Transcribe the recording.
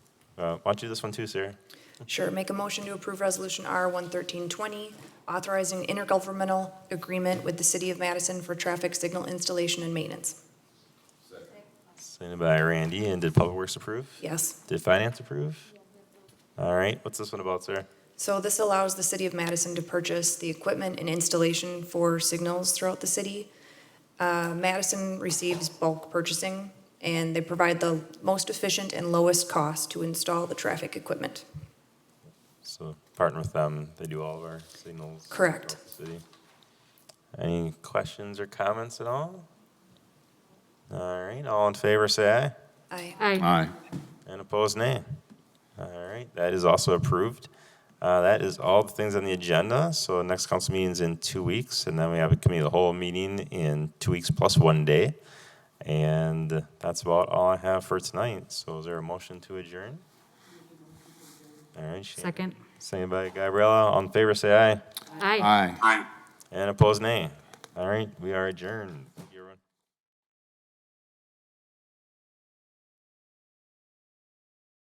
Uh, Why don't you do this one too, Sarah? Sure, make a motion to approve Resolution R 11320, authorizing intergovernmental agreement with the City of Madison for traffic signal installation and maintenance. Signed by Randy, and did Public Works approve? Yes. Did Finance approve? All right, what's this one about, Sarah? So this allows the City of Madison to purchase the equipment and installation for signals throughout the city. Uh, Madison receives bulk purchasing, and they provide the most efficient and lowest cost to install the traffic equipment. So partner with them, they do all of our signals. Correct. throughout the City. Any questions or comments at all? All right, all in favor, say aye. Aye. Aye. Aye. And opposed, nay. All right, that is also approved. Uh, That is all the things on the agenda. So next council meeting's in two weeks, and then we have a committee of the whole meeting in two weeks plus one day. And that's about all I have for tonight. So is there a motion to adjourn? All right. Shannon. Second. Second by Gabriella. All in favor, say aye. Aye. Aye. And opposed, nay. All right, we are adjourned.